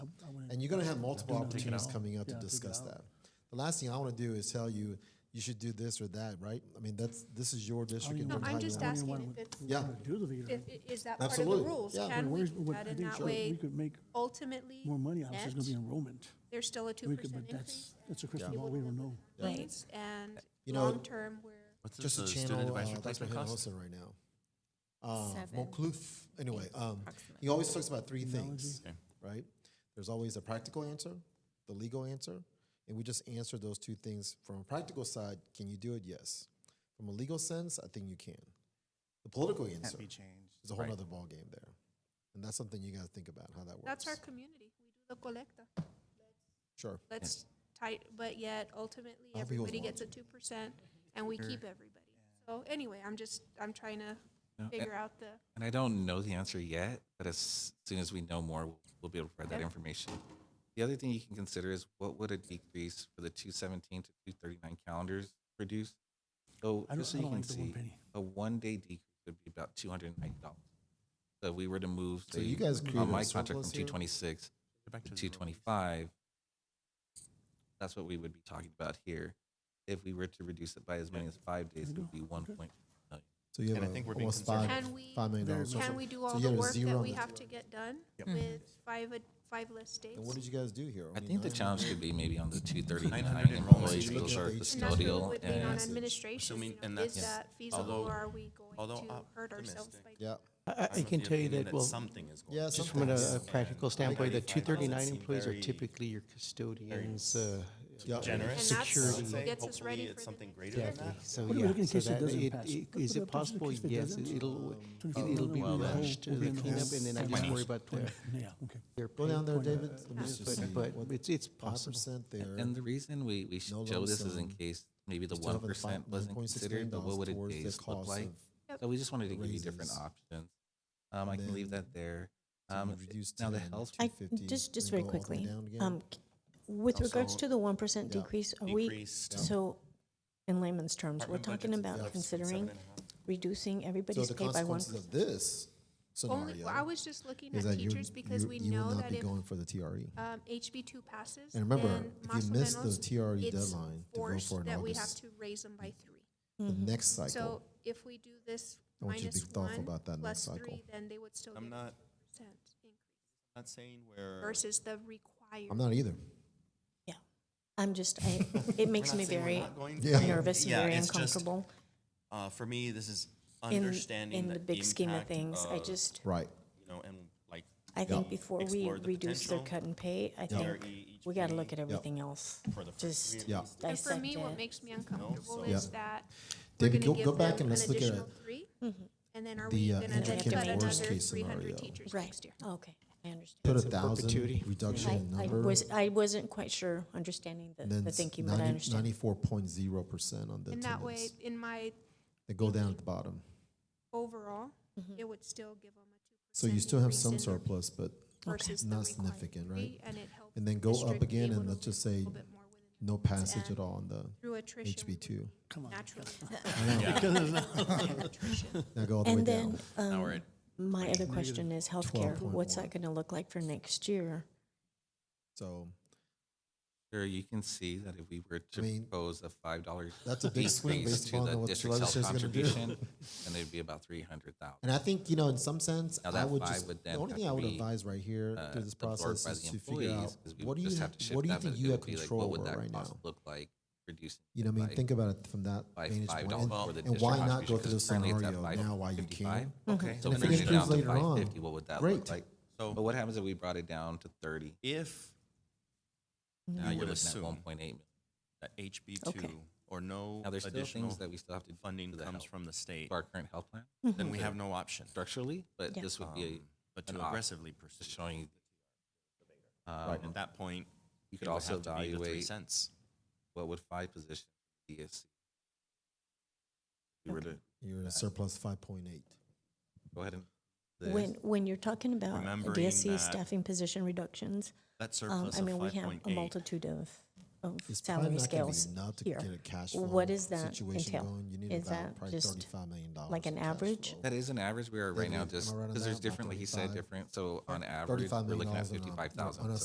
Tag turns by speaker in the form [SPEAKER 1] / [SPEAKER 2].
[SPEAKER 1] and you're going to have multiple
[SPEAKER 2] Do not take it
[SPEAKER 1] opportunities
[SPEAKER 2] out.
[SPEAKER 1] coming out
[SPEAKER 2] Yeah,
[SPEAKER 1] to
[SPEAKER 2] take it
[SPEAKER 1] discuss
[SPEAKER 2] out.
[SPEAKER 1] that. The last thing I want to do is tell you you should do this or that, right? I mean, that's this is your
[SPEAKER 2] Oh,
[SPEAKER 1] district.
[SPEAKER 2] you
[SPEAKER 1] and
[SPEAKER 2] No,
[SPEAKER 1] how
[SPEAKER 2] I'm
[SPEAKER 1] you
[SPEAKER 2] just
[SPEAKER 1] want it.
[SPEAKER 2] asking
[SPEAKER 3] if it's-
[SPEAKER 1] Yeah.
[SPEAKER 2] Wanna Do the
[SPEAKER 3] If,
[SPEAKER 2] VEDAR.
[SPEAKER 3] i- is that part of the
[SPEAKER 1] Absolutely,
[SPEAKER 3] rules?
[SPEAKER 1] yeah.
[SPEAKER 3] Can we
[SPEAKER 2] Where's-
[SPEAKER 3] do
[SPEAKER 2] what-
[SPEAKER 3] that
[SPEAKER 2] I
[SPEAKER 3] in
[SPEAKER 2] think
[SPEAKER 3] that
[SPEAKER 2] so.
[SPEAKER 3] way?
[SPEAKER 2] We could make
[SPEAKER 3] Ultimately,
[SPEAKER 2] more money out, so it's gonna be
[SPEAKER 3] net,
[SPEAKER 2] enrollment.
[SPEAKER 3] there's still a two
[SPEAKER 2] We could,
[SPEAKER 3] percent
[SPEAKER 2] but
[SPEAKER 3] increase.
[SPEAKER 2] that's, that's a crystal ball, we don't know.
[SPEAKER 3] Rates and
[SPEAKER 1] You know-
[SPEAKER 3] long-term, we're,
[SPEAKER 4] What's this,
[SPEAKER 1] Just a
[SPEAKER 4] uh,
[SPEAKER 1] channel.
[SPEAKER 4] student advisory
[SPEAKER 1] uh, that's what
[SPEAKER 4] placement
[SPEAKER 1] Hannah
[SPEAKER 4] cost?
[SPEAKER 1] Hosa right now. Uh,
[SPEAKER 5] Seven.
[SPEAKER 1] Moncloof. Anyway, um,
[SPEAKER 5] approximately.
[SPEAKER 1] he always talks about three things,
[SPEAKER 4] Okay.
[SPEAKER 1] right? There's always a practical answer, the legal answer, and we just answer those two things from a practical side. Can you do it? Yes. From a legal sense, I think you can. The political answer
[SPEAKER 6] be changed.
[SPEAKER 1] is a whole
[SPEAKER 4] Right.
[SPEAKER 1] other ball game there, and that's something you got to think about how that works.
[SPEAKER 3] that's our community. We do the colecta.
[SPEAKER 1] sure.
[SPEAKER 3] Let's tight, but yet ultimately,
[SPEAKER 1] I hope he was
[SPEAKER 3] everybody gets a two percent and we keep everybody. So anyway, I'm just, I'm trying
[SPEAKER 4] Yeah.
[SPEAKER 6] Uh,
[SPEAKER 3] to figure out the,
[SPEAKER 4] And I don't know the answer yet, but as soon as we know more, we'll, we'll be able to provide that
[SPEAKER 3] Okay.
[SPEAKER 4] information. The other thing you can consider is what would a decrease for the 217 to 239 calendars produce? So
[SPEAKER 2] I don't,
[SPEAKER 4] just so
[SPEAKER 2] I
[SPEAKER 4] you
[SPEAKER 2] don't
[SPEAKER 4] can
[SPEAKER 2] like the one
[SPEAKER 4] see,
[SPEAKER 2] penny.
[SPEAKER 4] a one-day decrease would be about $290. So if we were to move,
[SPEAKER 1] So you
[SPEAKER 4] say,
[SPEAKER 1] guys created
[SPEAKER 4] on
[SPEAKER 1] a
[SPEAKER 4] my contract from
[SPEAKER 1] surplus here?
[SPEAKER 4] 226
[SPEAKER 6] Back to
[SPEAKER 4] to
[SPEAKER 6] the
[SPEAKER 4] 225, that's what we would be talking about here. If we were to reduce it by as many as five days, it would be 1.2 million.
[SPEAKER 1] So you have
[SPEAKER 6] And I
[SPEAKER 1] a-
[SPEAKER 6] think we're being
[SPEAKER 1] almost five,
[SPEAKER 6] conservative.
[SPEAKER 3] can we,
[SPEAKER 1] five million dollars.
[SPEAKER 3] can we do all
[SPEAKER 1] you
[SPEAKER 3] the
[SPEAKER 1] had a
[SPEAKER 3] work
[SPEAKER 1] zero
[SPEAKER 3] that
[SPEAKER 1] on
[SPEAKER 3] we
[SPEAKER 1] the-
[SPEAKER 3] have to get done
[SPEAKER 6] Yep.
[SPEAKER 3] with
[SPEAKER 2] Mm-hmm.
[SPEAKER 3] five, ad- five less days?
[SPEAKER 1] And what did you guys do here?
[SPEAKER 4] I think the
[SPEAKER 1] nine-
[SPEAKER 4] challenge could be maybe on the two thirty-nine
[SPEAKER 6] 900
[SPEAKER 4] employees,
[SPEAKER 1] enrollments.
[SPEAKER 4] those are
[SPEAKER 3] And that's what we
[SPEAKER 4] custodial
[SPEAKER 3] would lean on
[SPEAKER 4] and.
[SPEAKER 3] administration,
[SPEAKER 6] assuming-
[SPEAKER 3] you
[SPEAKER 6] and
[SPEAKER 3] know, is
[SPEAKER 4] that's-
[SPEAKER 3] that feasible
[SPEAKER 6] although-
[SPEAKER 3] or are we going
[SPEAKER 6] although
[SPEAKER 3] to hurt ourselves
[SPEAKER 6] optimistic.
[SPEAKER 3] by?
[SPEAKER 1] Yeah.
[SPEAKER 7] I, I can tell you that, well,
[SPEAKER 6] Something is going.
[SPEAKER 1] Yeah.
[SPEAKER 7] just from uh, a
[SPEAKER 1] something's-
[SPEAKER 7] a practical standpoint, the 239
[SPEAKER 6] seem
[SPEAKER 7] employees are
[SPEAKER 6] very
[SPEAKER 7] typically your custodians, uh,
[SPEAKER 1] Yeah.
[SPEAKER 3] And
[SPEAKER 6] Generous.
[SPEAKER 3] that's
[SPEAKER 7] Security.
[SPEAKER 3] what gets us ready for
[SPEAKER 6] Hopefully it's
[SPEAKER 3] the
[SPEAKER 6] something
[SPEAKER 3] next
[SPEAKER 6] greater
[SPEAKER 3] year.
[SPEAKER 6] than
[SPEAKER 7] exactly.
[SPEAKER 6] that.
[SPEAKER 7] So,
[SPEAKER 2] What do we
[SPEAKER 7] yeah,
[SPEAKER 2] look in
[SPEAKER 7] so
[SPEAKER 2] case it
[SPEAKER 7] that,
[SPEAKER 2] doesn't
[SPEAKER 7] it-
[SPEAKER 2] pass?
[SPEAKER 7] it-
[SPEAKER 2] What- what
[SPEAKER 7] is it
[SPEAKER 2] happens in
[SPEAKER 7] possible?
[SPEAKER 2] case it
[SPEAKER 7] Yes,
[SPEAKER 2] doesn't?
[SPEAKER 7] it- it'll,
[SPEAKER 2] Twenty-
[SPEAKER 7] it- it'll be
[SPEAKER 2] Well, then-
[SPEAKER 7] rushed, uh,
[SPEAKER 2] we'll be
[SPEAKER 7] the
[SPEAKER 2] in the
[SPEAKER 7] cleanup,
[SPEAKER 2] hole.
[SPEAKER 7] and then I just
[SPEAKER 2] Twenty.
[SPEAKER 7] worry about their,
[SPEAKER 2] Yeah, okay.
[SPEAKER 7] their
[SPEAKER 1] Go down
[SPEAKER 7] pain
[SPEAKER 1] there,
[SPEAKER 7] point.
[SPEAKER 1] David. Let me just see
[SPEAKER 7] But, but
[SPEAKER 1] what
[SPEAKER 7] it's, it's
[SPEAKER 1] five
[SPEAKER 7] possible.
[SPEAKER 1] percent there.
[SPEAKER 4] And the reason we, we
[SPEAKER 1] No
[SPEAKER 4] should show this is in
[SPEAKER 1] lump sum.
[SPEAKER 4] case maybe
[SPEAKER 1] You
[SPEAKER 4] the
[SPEAKER 1] still
[SPEAKER 4] one
[SPEAKER 1] have a fi-
[SPEAKER 4] percent wasn't
[SPEAKER 1] 1.6
[SPEAKER 4] considered, but
[SPEAKER 1] million
[SPEAKER 4] what would a
[SPEAKER 1] towards the
[SPEAKER 4] days look
[SPEAKER 1] cost
[SPEAKER 4] like?
[SPEAKER 1] of-
[SPEAKER 4] So we just wanted to give you different
[SPEAKER 1] raises.
[SPEAKER 4] options. Um, I can leave
[SPEAKER 1] then
[SPEAKER 4] that there.
[SPEAKER 1] so you
[SPEAKER 4] Um,
[SPEAKER 1] reduce
[SPEAKER 4] now the
[SPEAKER 1] 10
[SPEAKER 4] health
[SPEAKER 1] to
[SPEAKER 8] I,
[SPEAKER 1] 50,
[SPEAKER 8] just, just
[SPEAKER 1] then
[SPEAKER 8] very
[SPEAKER 1] go up and
[SPEAKER 8] quickly,
[SPEAKER 1] down again.
[SPEAKER 8] um, c- with regards
[SPEAKER 6] Also,
[SPEAKER 8] to the one percent
[SPEAKER 1] yeah,
[SPEAKER 8] decrease, are we,
[SPEAKER 6] Decreased
[SPEAKER 8] so, in layman's terms, we're
[SPEAKER 6] Department
[SPEAKER 8] talking
[SPEAKER 6] budgets
[SPEAKER 1] Yeah.
[SPEAKER 8] about considering
[SPEAKER 6] seven and a half.
[SPEAKER 8] reducing
[SPEAKER 1] so
[SPEAKER 8] everybody's
[SPEAKER 1] the
[SPEAKER 8] pay by one.
[SPEAKER 1] consequences of this scenario
[SPEAKER 3] Only, well, I was just looking
[SPEAKER 1] is
[SPEAKER 3] at
[SPEAKER 1] that you,
[SPEAKER 3] teachers because
[SPEAKER 1] you,
[SPEAKER 3] we
[SPEAKER 1] you
[SPEAKER 3] know
[SPEAKER 1] will not
[SPEAKER 3] that
[SPEAKER 1] be
[SPEAKER 3] if
[SPEAKER 1] going for the E, TRE.
[SPEAKER 3] um, HB two passes.
[SPEAKER 1] And remember,
[SPEAKER 3] then
[SPEAKER 1] if you
[SPEAKER 3] más o
[SPEAKER 1] miss the
[SPEAKER 3] menos,
[SPEAKER 1] TRE
[SPEAKER 3] it's
[SPEAKER 1] deadline to vote
[SPEAKER 3] forced
[SPEAKER 1] for in
[SPEAKER 3] That we have
[SPEAKER 1] August.
[SPEAKER 3] to raise them by three.
[SPEAKER 1] The next cycle.
[SPEAKER 3] Mm-hmm. So if we do this
[SPEAKER 1] I want you to be
[SPEAKER 3] minus
[SPEAKER 1] thoughtful
[SPEAKER 3] one
[SPEAKER 1] about that next
[SPEAKER 3] plus
[SPEAKER 1] cycle.
[SPEAKER 3] three, then they would still get
[SPEAKER 6] I'm
[SPEAKER 3] a
[SPEAKER 6] not-
[SPEAKER 3] percent increase
[SPEAKER 6] Not saying where.
[SPEAKER 3] versus the
[SPEAKER 1] I'm
[SPEAKER 3] required.
[SPEAKER 1] not either.
[SPEAKER 8] Yeah, I'm just, I, it makes
[SPEAKER 6] not
[SPEAKER 8] me
[SPEAKER 6] saying we're
[SPEAKER 8] very
[SPEAKER 6] not going
[SPEAKER 1] Yeah.
[SPEAKER 6] to.
[SPEAKER 8] nervous and
[SPEAKER 6] Yeah,
[SPEAKER 8] very
[SPEAKER 6] it's just
[SPEAKER 8] uncomfortable
[SPEAKER 6] Uh, for me, this is
[SPEAKER 8] in,
[SPEAKER 6] understanding.
[SPEAKER 8] in the big scheme of
[SPEAKER 6] impact
[SPEAKER 8] things. I
[SPEAKER 6] of,
[SPEAKER 8] just,
[SPEAKER 1] Right.
[SPEAKER 6] You know, and like.
[SPEAKER 8] I think before we
[SPEAKER 6] explore the
[SPEAKER 8] reduce their
[SPEAKER 6] potential,
[SPEAKER 8] cut and pay, I think
[SPEAKER 6] TRE,
[SPEAKER 8] we gotta
[SPEAKER 6] HPE,
[SPEAKER 8] look at everything else.
[SPEAKER 6] for the first
[SPEAKER 8] Just
[SPEAKER 6] three at
[SPEAKER 1] Yeah.
[SPEAKER 6] least.
[SPEAKER 3] And for
[SPEAKER 8] dissect
[SPEAKER 3] me, what
[SPEAKER 8] it.
[SPEAKER 3] makes me uncomfortable
[SPEAKER 6] so-
[SPEAKER 3] is
[SPEAKER 1] Yeah.
[SPEAKER 3] that we're
[SPEAKER 1] David,
[SPEAKER 3] gonna
[SPEAKER 1] go-
[SPEAKER 3] give
[SPEAKER 1] go back
[SPEAKER 3] them
[SPEAKER 1] and let's
[SPEAKER 3] an
[SPEAKER 1] look at
[SPEAKER 3] additional three,
[SPEAKER 8] Mm-hmm.
[SPEAKER 3] And then are
[SPEAKER 1] the,
[SPEAKER 3] we
[SPEAKER 1] uh,
[SPEAKER 3] gonna then
[SPEAKER 8] intricate
[SPEAKER 3] cut another
[SPEAKER 1] worst-case
[SPEAKER 3] three hundred
[SPEAKER 1] scenario.
[SPEAKER 3] teachers
[SPEAKER 8] Right.
[SPEAKER 3] next year?
[SPEAKER 8] Okay, I understand.
[SPEAKER 1] Put a
[SPEAKER 7] That's in
[SPEAKER 1] thousand
[SPEAKER 7] perpetuity.
[SPEAKER 1] reduction
[SPEAKER 8] I,
[SPEAKER 1] in
[SPEAKER 8] I
[SPEAKER 1] number.
[SPEAKER 8] was, I wasn't quite sure understanding the,
[SPEAKER 1] Then
[SPEAKER 8] the thinking, but I understand.
[SPEAKER 1] ninety-four point zero percent on the
[SPEAKER 3] And that way,
[SPEAKER 1] attendance.
[SPEAKER 3] in my
[SPEAKER 1] They go down at the bottom.
[SPEAKER 3] overall,
[SPEAKER 2] Mm-hmm.
[SPEAKER 3] it would still give them a two percent.
[SPEAKER 1] So you still have some surplus, but
[SPEAKER 3] versus the
[SPEAKER 1] not
[SPEAKER 3] required
[SPEAKER 1] significant, right?
[SPEAKER 3] three, And it helps
[SPEAKER 1] And then go
[SPEAKER 3] district
[SPEAKER 1] up
[SPEAKER 3] be
[SPEAKER 1] again
[SPEAKER 3] able
[SPEAKER 1] and
[SPEAKER 3] to
[SPEAKER 1] let's just
[SPEAKER 3] live a
[SPEAKER 1] say
[SPEAKER 3] little bit more within
[SPEAKER 1] no passage
[SPEAKER 3] and
[SPEAKER 1] at all on the
[SPEAKER 3] Through attrition.
[SPEAKER 1] HB two.
[SPEAKER 2] Come on.
[SPEAKER 3] Natural.
[SPEAKER 1] Now go all the way
[SPEAKER 8] And
[SPEAKER 1] down.
[SPEAKER 8] then, um, my other question is healthcare. What's
[SPEAKER 1] 12.1.
[SPEAKER 8] that gonna look like for next year?
[SPEAKER 1] So
[SPEAKER 4] Sure, you can see that if we were to
[SPEAKER 1] mean,
[SPEAKER 4] propose a five dollars.
[SPEAKER 1] that's a big swing based upon what the legislature's gonna do.
[SPEAKER 4] And there'd be about three hundred thousand.
[SPEAKER 1] And I think, you know, in some sense,
[SPEAKER 4] Now
[SPEAKER 1] I
[SPEAKER 4] that
[SPEAKER 1] would
[SPEAKER 4] five
[SPEAKER 1] just,
[SPEAKER 4] would
[SPEAKER 1] the
[SPEAKER 4] then
[SPEAKER 1] only
[SPEAKER 4] have
[SPEAKER 1] thing
[SPEAKER 4] to
[SPEAKER 1] I would
[SPEAKER 4] be,
[SPEAKER 1] advise right here
[SPEAKER 4] uh,
[SPEAKER 1] through this
[SPEAKER 4] absorbed by
[SPEAKER 1] process
[SPEAKER 4] the
[SPEAKER 1] is to figure out,
[SPEAKER 4] employees, 'cause we
[SPEAKER 1] what do you,
[SPEAKER 4] just
[SPEAKER 1] ha-
[SPEAKER 4] have to shift
[SPEAKER 1] what do you
[SPEAKER 4] that, but
[SPEAKER 1] think
[SPEAKER 4] it
[SPEAKER 1] you have
[SPEAKER 4] would be like,
[SPEAKER 1] control
[SPEAKER 4] What
[SPEAKER 1] over
[SPEAKER 4] would that
[SPEAKER 1] right now?
[SPEAKER 4] cost look like reducing?
[SPEAKER 1] You know, what I mean,
[SPEAKER 4] by-
[SPEAKER 1] think about it from that
[SPEAKER 4] by
[SPEAKER 1] vantage
[SPEAKER 4] five
[SPEAKER 1] point,
[SPEAKER 4] dollars for
[SPEAKER 1] and-
[SPEAKER 4] the
[SPEAKER 1] and why
[SPEAKER 4] district
[SPEAKER 1] not go through
[SPEAKER 4] contribution,
[SPEAKER 1] the
[SPEAKER 4] 'cause currently it's at
[SPEAKER 1] scenario now while you
[SPEAKER 4] 555.
[SPEAKER 1] can?
[SPEAKER 4] Okay, so
[SPEAKER 1] And if it
[SPEAKER 4] bringing it
[SPEAKER 1] improves
[SPEAKER 4] down to
[SPEAKER 1] later
[SPEAKER 4] five
[SPEAKER 1] on,
[SPEAKER 4] fifty, what would that
[SPEAKER 1] great.
[SPEAKER 4] look like?
[SPEAKER 6] So-
[SPEAKER 4] But what happens if we brought it down to thirty?
[SPEAKER 6] If
[SPEAKER 4] Now
[SPEAKER 6] You
[SPEAKER 4] you're
[SPEAKER 6] would
[SPEAKER 4] looking at
[SPEAKER 6] assume-
[SPEAKER 4] one point eight million.
[SPEAKER 6] that HB
[SPEAKER 8] Okay.
[SPEAKER 6] two or no
[SPEAKER 4] Now, there's still
[SPEAKER 6] additional
[SPEAKER 4] things that we still have to do
[SPEAKER 6] funding
[SPEAKER 4] to the
[SPEAKER 6] comes
[SPEAKER 4] health-
[SPEAKER 6] from the state,
[SPEAKER 4] to our current health plan
[SPEAKER 8] Mm-hmm.
[SPEAKER 6] then we have no option.
[SPEAKER 4] structurally, but
[SPEAKER 8] Yeah.
[SPEAKER 4] this would be,
[SPEAKER 6] Um, But
[SPEAKER 4] an
[SPEAKER 6] to
[SPEAKER 4] op-
[SPEAKER 6] aggressively
[SPEAKER 4] just
[SPEAKER 6] pursue.
[SPEAKER 4] showing you.
[SPEAKER 6] Right,
[SPEAKER 4] um,
[SPEAKER 6] At that point.
[SPEAKER 4] You
[SPEAKER 6] it
[SPEAKER 4] could
[SPEAKER 6] would
[SPEAKER 4] also
[SPEAKER 6] have to be the three
[SPEAKER 4] evaluate
[SPEAKER 6] Cents.
[SPEAKER 4] what would five positions be if we were to
[SPEAKER 1] You're in a surplus five point eight.
[SPEAKER 4] go ahead and. this.
[SPEAKER 8] When, when you're talking about
[SPEAKER 6] Remembering
[SPEAKER 8] DSC
[SPEAKER 6] that-
[SPEAKER 8] staffing position reductions,
[SPEAKER 6] That
[SPEAKER 8] um,
[SPEAKER 6] surplus
[SPEAKER 8] I mean, we
[SPEAKER 6] of five
[SPEAKER 8] have
[SPEAKER 6] point
[SPEAKER 8] a
[SPEAKER 6] eight.
[SPEAKER 8] multitude of, of
[SPEAKER 1] It's probably
[SPEAKER 8] salary
[SPEAKER 1] not gonna be
[SPEAKER 8] scales
[SPEAKER 1] enough to
[SPEAKER 8] here.
[SPEAKER 1] get a cash
[SPEAKER 8] What
[SPEAKER 1] flow
[SPEAKER 8] does that
[SPEAKER 1] situation
[SPEAKER 8] entail?
[SPEAKER 1] going. You need
[SPEAKER 8] Is
[SPEAKER 1] about
[SPEAKER 8] that
[SPEAKER 1] probably
[SPEAKER 8] just
[SPEAKER 1] $35 million
[SPEAKER 8] like an
[SPEAKER 1] in cash
[SPEAKER 8] average?
[SPEAKER 1] flow.
[SPEAKER 4] That is an average. We are right now
[SPEAKER 1] David, am I
[SPEAKER 4] just
[SPEAKER 1] right on
[SPEAKER 4] because there's
[SPEAKER 1] that? About
[SPEAKER 4] different, like he said,
[SPEAKER 1] 35?
[SPEAKER 4] different. So on average,
[SPEAKER 1] $35
[SPEAKER 4] we're
[SPEAKER 1] million
[SPEAKER 4] looking at
[SPEAKER 1] on a-
[SPEAKER 4] fifty-five
[SPEAKER 1] on
[SPEAKER 4] thousand.
[SPEAKER 1] a